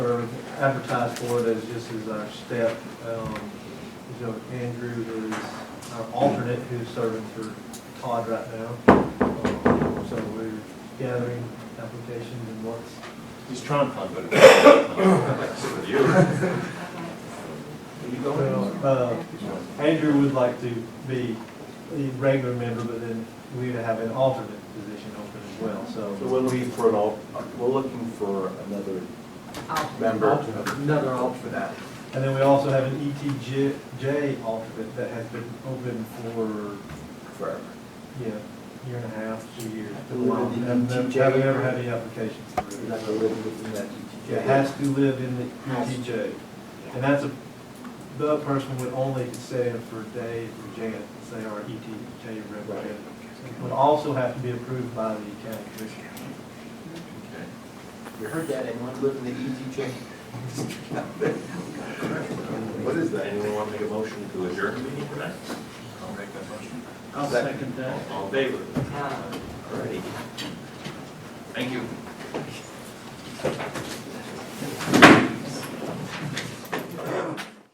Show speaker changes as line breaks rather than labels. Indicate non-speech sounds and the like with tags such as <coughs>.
advertised for it as just as our step. Um, You know, Andrew is our alternate who's serving for Todd right now. Um, So we're gathering applications and what's,
He's trying to find better. You. you
well, uh, Andrew would like to be the regular member, but then we have an alternate position open as well, so.
So we're looking for an al, <coughs> we're looking for another member.
Another alt for that.
And then we also have an ETJ alternate that has been open for
Forever.
Yeah, year and a half, two years.
Have to live in the E
Haven't
ETJ
haven't ever had any applications.
You're not gonna live within that E ETJ.
It has to live in the
Has to.
ETJ. And that's a, the person would only stand for Dave or Janet, they are E ETJ representative. Would also have to be approved by the county commission.
You heard that, anyone live in the E ETJ? <laughs> What is that?
Anyone want to make a motion to adjourn the meeting tonight? I'll make that motion.
I'll second
All in favor? Alrighty. Thank you.